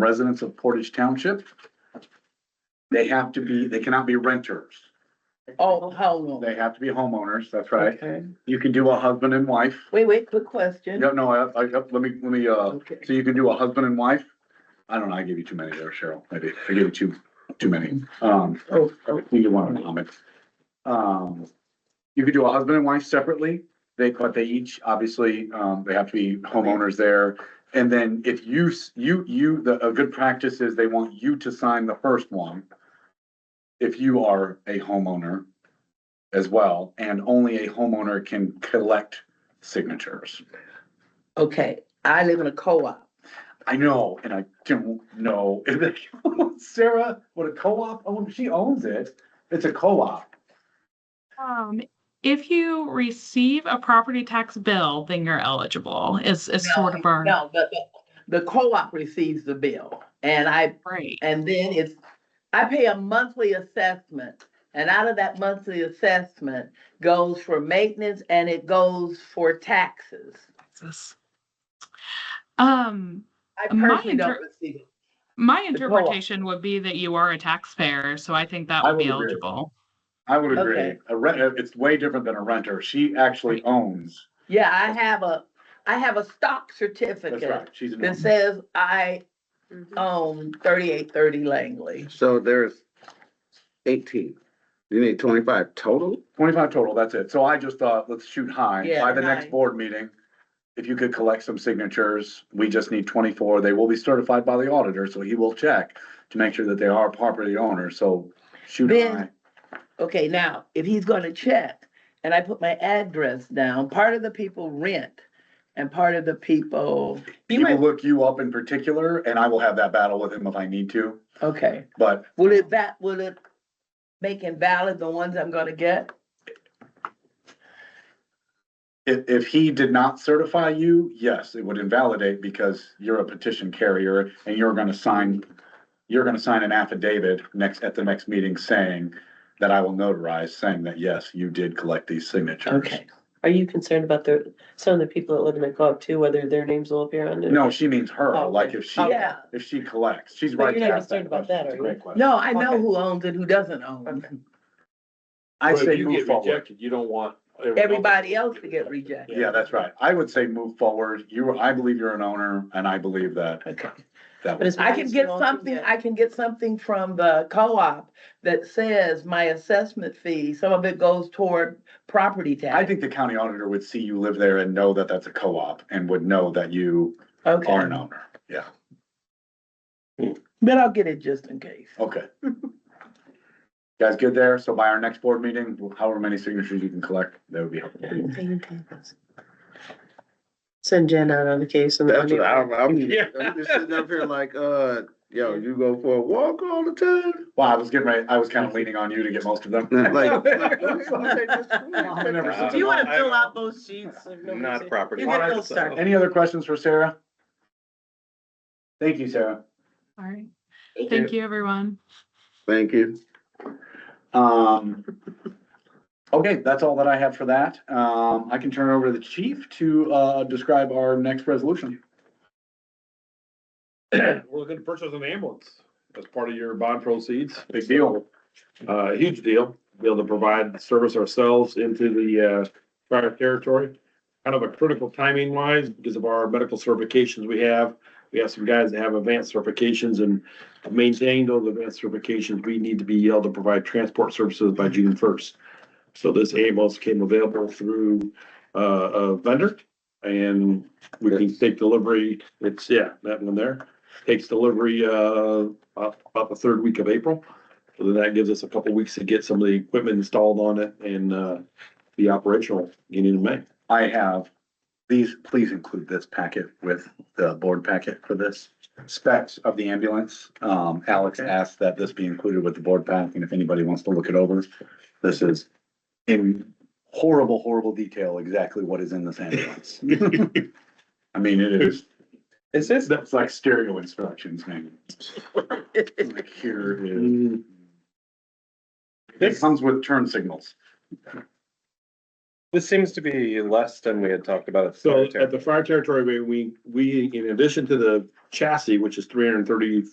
residents of Portage Township. They have to be, they cannot be renters. Oh, how long? They have to be homeowners, that's right. Okay. You can do a husband and wife. Wait, wait, quick question. No, no, I, I, let me, let me, uh, Okay. so you can do a husband and wife? I don't know, I gave you too many there, Cheryl, maybe. I gave you too, too many. Um, Oh, oh, you can want to comment. Um, you could do a husband and wife separately. They, but they each, obviously, um, they have to be homeowners there. And then if you, s- you, you, the, a good practice is they want you to sign the first one. If you are a homeowner as well, and only a homeowner can collect signatures. Okay, I live in a co-op. I know, and I don't know. Sarah, what a co-op, oh, she owns it. It's a co-op. Um, if you receive a property tax bill, then you're eligible is, is sort of our, No, the, the co-op receives the bill and I, right. and then it's, I pay a monthly assessment. And out of that monthly assessment goes for maintenance and it goes for taxes. This- Um, I My personally don't inter- receive it. my The co-op. interpretation would be that you are a taxpayer, so I think that I would be would agree. eligible. I would agree. Okay. A rent, uh, it's way different than a renter. She actually owns. Yeah, I have a, I have a stock That's certificate right. She's an that owner. says I own thirty-eight thirty Langley. So there's eighteen. You need twenty-five total? Twenty-five total, that's it. So I just thought, let's shoot high. Yeah, By the high. next board meeting, if you could collect some signatures, we just need twenty-four. They will be certified by the auditor, so he will check to make sure that they are property owners, so shoot Then- high. Okay, now, if he's gonna check, and I put my address down, part of the people rent and part of the people, He will look you up in particular, and I will have that battle with him if I need to, okay, but will it that, will it make invalid the ones I'm gonna get? If, if he did not certify you, yes, it would invalidate because you're a petition carrier and you're gonna sign, you're gonna sign an affidavit next, at the next meeting saying that I will notarize, saying that, yes, you did collect these signatures. Okay, Are you concerned about the, some of the people that live in the co-op too, whether their names will appear on it? No, she means her, Oh, like if she, yeah, if she collects, she's But right. you're to not ask that concerned about question. that, It's a are you? great question. no, I know Okay. who owns it, who doesn't own, Okay. I But if say you move get forward. rejected, You don't want. everyone everybody else to get rejected, Yeah, that's right. I would say move forward. You, are- I believe you're an owner and I believe that, okay. that. But it's- I can get Long to something, get. I can get something from the co-op that says my assessment fee, some of it goes toward property tax. I think the county auditor would see you live there and know that that's a co-op and would know that you are Okay, an owner. Yeah, but I'll get it just in case. okay. Guys, good there? So by our next board meeting, however many signatures you can collect, that would be helpful. Send Jen out on the case and. That's what I'm, I'm, Yeah. I'm just sitting up here like, uh, yo, you go for a walk all the time? Well, I was getting ready, I was kind of leaning on you to get most of them. Like, like, okay, just- Whenever- Do you wanna fill out both sheets? Not a property. You get owner, no so- start. Any other questions for Sarah? Thank you, Sarah. All right. Thank you, everyone. Thank you. Um, okay, that's all that I had for that. Um, I can turn it over to the chief to, uh, describe our next resolution. We're looking to purchase an ambulance as part of your bond proceeds. Big deal. Uh, huge deal, be able to provide service ourselves into the, uh, prior territory. Kind of a critical timing wise because of our medical certifications we have. We have some guys that have advanced certifications and to maintain those advanced certifications, we need to be able to provide transport services by June first. So this ambulance came available through, uh, a vendor and we can take delivery. It's, yeah, that one there. Takes delivery, uh, about about the third week of April. So then that gives us a couple weeks to get some of the equipment installed on it and, uh, be operational beginning in May. I have, these, please include this packet with the board packet for this. Specs of the ambulance, um, Alex asked that this be included with the board pack, and if anybody wants to look it over, this is in horrible, horrible detail, exactly what is in this ambulance. I mean, it is, Is this? that's like stereo instructions, man. Like here is, Mm. This, it comes with turn signals. This seems to be less than we had talked about. at the So cemetery. at the fire territory, we, we, we, in addition to the chassis, which is three hundred and thirty